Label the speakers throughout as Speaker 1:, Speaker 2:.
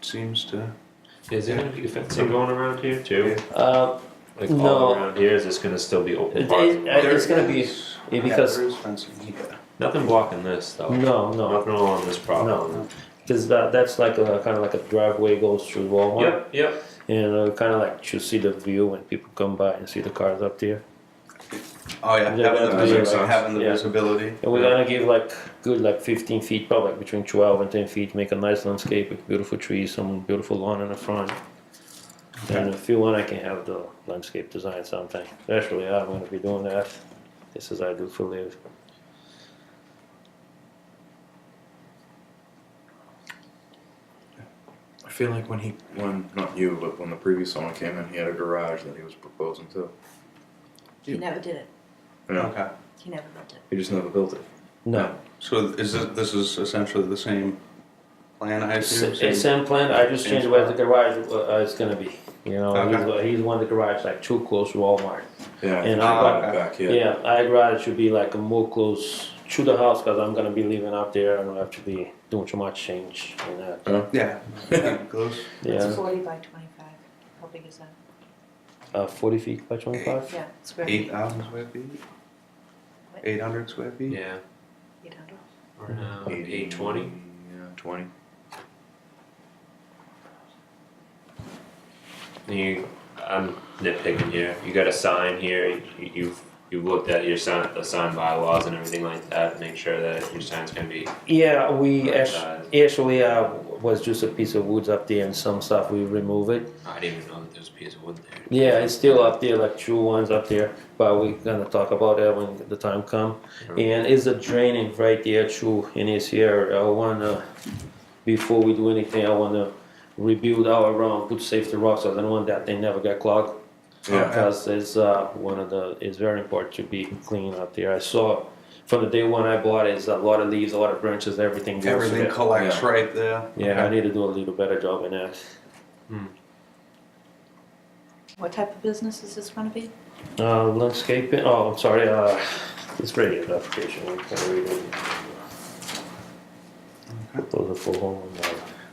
Speaker 1: seems to.
Speaker 2: Is there gonna be fencing
Speaker 3: fencing
Speaker 2: going?
Speaker 3: going around here too?
Speaker 2: Uh,
Speaker 3: Like
Speaker 2: No.
Speaker 3: all around here, is this gonna still be open
Speaker 2: it,
Speaker 3: park?
Speaker 2: it- it's
Speaker 1: There
Speaker 2: gonna be
Speaker 1: is-
Speaker 2: yeah,
Speaker 1: yeah,
Speaker 2: because
Speaker 1: there is fencing here.
Speaker 3: Nothing blocking this though.
Speaker 2: no, no,
Speaker 3: Nothing along this problem.
Speaker 2: no, because that that's like a kind of like a driveway goes through Walmart,
Speaker 3: Yep, yep.
Speaker 2: and uh, kind of like you see the view when people come by and see the cars up there.
Speaker 1: Oh yeah,
Speaker 2: Yeah,
Speaker 1: having the,
Speaker 2: that
Speaker 3: makes
Speaker 1: visi-
Speaker 3: sense.
Speaker 1: having the
Speaker 2: Yeah.
Speaker 1: visibility.
Speaker 2: And we're
Speaker 3: Yeah.
Speaker 2: gonna give like good like 15 feet, probably like between 12 and 10 feet, make a nice landscape with beautiful trees, some beautiful lawn in the front. And if you want, I can have the landscape design sometime. Actually, I'm gonna be doing that. This is I do for live.
Speaker 4: I feel like when he, when not you, but when the previous owner came in, he had a garage that he was proposing to.
Speaker 5: He never did it.
Speaker 4: You know,
Speaker 1: Okay.
Speaker 5: He never built it.
Speaker 4: he just never built it.
Speaker 2: No,
Speaker 1: So is this, this is essentially the same plan I
Speaker 2: it's
Speaker 1: assume?
Speaker 2: it's same plan. I just changed where the garage uh, is gonna be. You know, he's, uh, he's one of the garage like too close to Walmart.
Speaker 4: Yeah.
Speaker 2: And
Speaker 4: he
Speaker 2: I-
Speaker 4: brought it
Speaker 1: Ah, okay.
Speaker 4: back
Speaker 2: Yeah,
Speaker 4: here.
Speaker 2: I rather should be like more close to the house because I'm gonna be living up there. I don't have to be doing too much change in that.
Speaker 1: Yeah. Close.
Speaker 5: It's
Speaker 2: Yeah,
Speaker 5: forty by twenty-five. How big is that?
Speaker 2: uh, 40 feet by 25.
Speaker 5: Yeah, square
Speaker 1: Eight uh,
Speaker 5: feet.
Speaker 1: thousand square feet? Eight hundred square feet?
Speaker 3: Yeah.
Speaker 5: Eight hundred.
Speaker 3: Around eight twenty.
Speaker 4: Yeah, twenty.
Speaker 3: You, I'm nitpicking here. You got a sign here. You, you've you've looked at your sign, the sign bylaws and everything like that. Make sure that your sign's gonna be
Speaker 2: Yeah, we
Speaker 3: right
Speaker 2: actually,
Speaker 3: size.
Speaker 2: actually uh, was just a piece of woods up there and some stuff we remove it.
Speaker 3: I didn't even know that there was a piece of wood there.
Speaker 2: Yeah, it's still up there, like true ones up there, but we're gonna talk about that when the time come. And it's a draining right there too in this area. I wanna, before we do anything, I wanna rebuild our run, put safety rocks. I don't want that they never get clogged.
Speaker 4: Yeah.
Speaker 2: because it's uh, one of the it's very important to be clean up there. I saw from the day when I bought it, it's a lot of leaves, a lot of branches, everything. goes
Speaker 1: Everything
Speaker 2: there.
Speaker 1: collects right there.
Speaker 2: Yeah, I need to do a little better job in that.
Speaker 5: What type of business is this gonna be?
Speaker 2: Uh, landscaping. Oh, I'm sorry. Uh, it's ready the application. I can't read it. Those are for home. uh,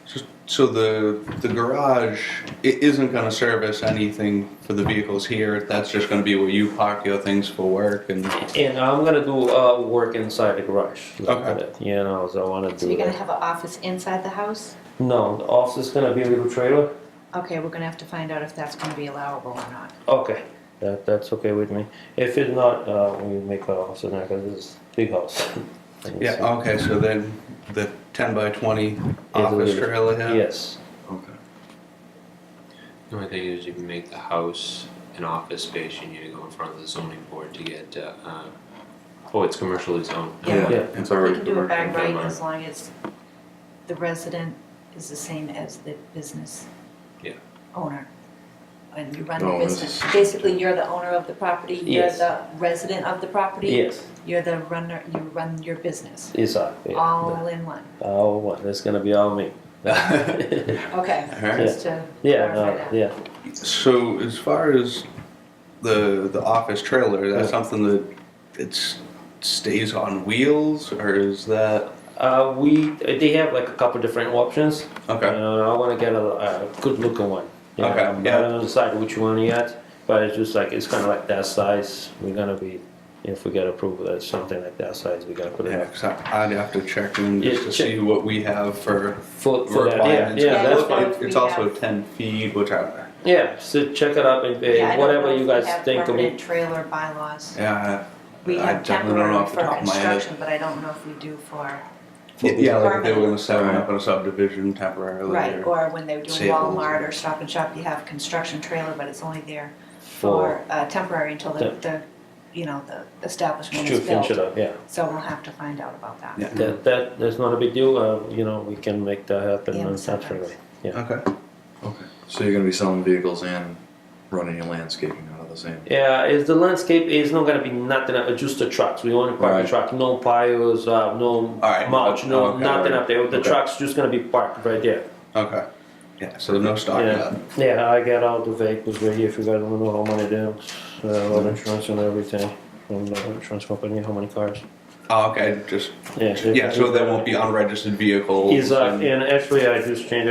Speaker 1: So- So the, the garage, it isn't gonna service anything for the vehicles here, that's just gonna be where you park your things for work and,
Speaker 2: And I'm gonna do uh, work inside the garage. like
Speaker 1: Okay.
Speaker 2: that, You know, so I wanna do.
Speaker 5: So you're gonna
Speaker 2: that.
Speaker 5: have an office inside the house?
Speaker 2: No, the office is gonna be a little trailer.
Speaker 5: Okay, we're gonna have to find out if that's gonna be allowable or not.
Speaker 2: Okay, that, that's okay with me. If it's not, uh, we make a house in there, cause it's big house.
Speaker 1: yeah, okay, so then the ten by twenty office
Speaker 2: little-
Speaker 1: trailer here?
Speaker 2: Yes,
Speaker 1: Okay.
Speaker 3: The only thing is you can make the house an office space. You need to go in front of the zoning board to get. Uh, uh, oh, it's commercially zoned.
Speaker 5: Yeah.
Speaker 2: yeah,
Speaker 4: It's
Speaker 5: We
Speaker 4: already
Speaker 5: can do it
Speaker 4: commercial.
Speaker 5: by right
Speaker 3: Right.
Speaker 5: as long as the resident is the same as the business
Speaker 3: Yeah.
Speaker 5: owner. And you run the
Speaker 4: No, this
Speaker 5: business.
Speaker 4: is-
Speaker 5: Basically, you're the owner of the property, you're
Speaker 2: Yes.
Speaker 5: the resident of the property.
Speaker 2: yes,
Speaker 5: You're the runner, you run your business,
Speaker 2: it's, uh, yeah.
Speaker 5: all in one.
Speaker 2: Oh, well, that's gonna be all me. Yeah,
Speaker 5: Okay,
Speaker 1: Alright.
Speaker 5: just to clarify
Speaker 2: no,
Speaker 5: that.
Speaker 2: yeah,
Speaker 1: So as far as the the office trailer, that's something that it's stays on wheels or is that
Speaker 2: uh, we, they have like a couple different options.
Speaker 1: okay?
Speaker 2: Uh, I wanna get a, a good looking one. You
Speaker 1: Okay,
Speaker 2: know, I'm-
Speaker 1: yeah.
Speaker 2: I don't decide which one yet, but it's just like, it's kinda like that size, we're gonna be, if we get approval, that's something like that size, we gotta put it
Speaker 1: Yeah,
Speaker 2: in.
Speaker 1: 'cause I, I'd have to check in just
Speaker 2: Yeah,
Speaker 1: to
Speaker 2: check.
Speaker 1: see what we have for
Speaker 2: For, for that, yeah,
Speaker 1: requirements.
Speaker 2: yeah,
Speaker 5: Yeah,
Speaker 2: that's
Speaker 5: that's
Speaker 2: fine.
Speaker 5: fine.
Speaker 1: It- It's
Speaker 5: We
Speaker 1: also
Speaker 5: have-
Speaker 1: ten feet, which I
Speaker 2: Yeah, so check it out and uh,
Speaker 5: Yeah, I don't know
Speaker 2: whatever
Speaker 5: if
Speaker 2: you
Speaker 5: we
Speaker 2: guys
Speaker 5: have
Speaker 2: think.
Speaker 5: Permanent
Speaker 2: We,
Speaker 5: trailer bylaws.
Speaker 1: yeah.
Speaker 5: We
Speaker 1: I
Speaker 5: have
Speaker 1: definitely don't know
Speaker 5: temporary
Speaker 1: off the
Speaker 5: for
Speaker 1: top of my head.
Speaker 5: construction, but I don't know if we do for,
Speaker 1: Yeah, yeah, like if they were gonna set one
Speaker 4: Right.
Speaker 1: up in a subdivision temporarily.
Speaker 5: right,
Speaker 1: or-
Speaker 5: or when they were doing
Speaker 1: Sales.
Speaker 5: Walmart or Stop and Shop, you have construction trailer, but it's only there
Speaker 2: for
Speaker 5: for uh, temporary until the,
Speaker 2: Yeah.
Speaker 5: the, you know, the establishment
Speaker 2: to
Speaker 5: is
Speaker 2: finish it
Speaker 5: built.
Speaker 2: up, yeah.
Speaker 5: So we'll have to find out about that.
Speaker 1: Yeah.
Speaker 2: That, that that's not a big deal. Uh, you know, we can make that happen
Speaker 5: Yeah,
Speaker 2: on
Speaker 5: sometimes.
Speaker 2: Saturday.
Speaker 1: Okay.
Speaker 4: Okay. So you're gonna be selling vehicles and running your landscaping out of the same.
Speaker 2: Yeah, it's the landscape is not gonna be nothing. Up, just the trucks. We only park
Speaker 4: Right.
Speaker 2: the truck. No piles. Uh, no
Speaker 1: Alright,
Speaker 2: mulch. No
Speaker 1: okay,
Speaker 2: nothing
Speaker 1: alright.
Speaker 2: up there. The
Speaker 1: Okay.
Speaker 2: trucks just gonna be parked right there.
Speaker 1: Okay. Yeah. So no stock
Speaker 2: Yeah.
Speaker 1: up.
Speaker 2: Yeah, I got all the vehicles right here. If you guys wanna know how many damns, uh,
Speaker 1: Mm-hmm.
Speaker 2: all the insurance and everything from the insurance company, how many cars.
Speaker 1: Oh, okay. Just
Speaker 2: Yeah.
Speaker 1: yeah. So there won't be unregistered vehicles.
Speaker 2: Is uh,
Speaker 1: and-
Speaker 2: and actually I just changed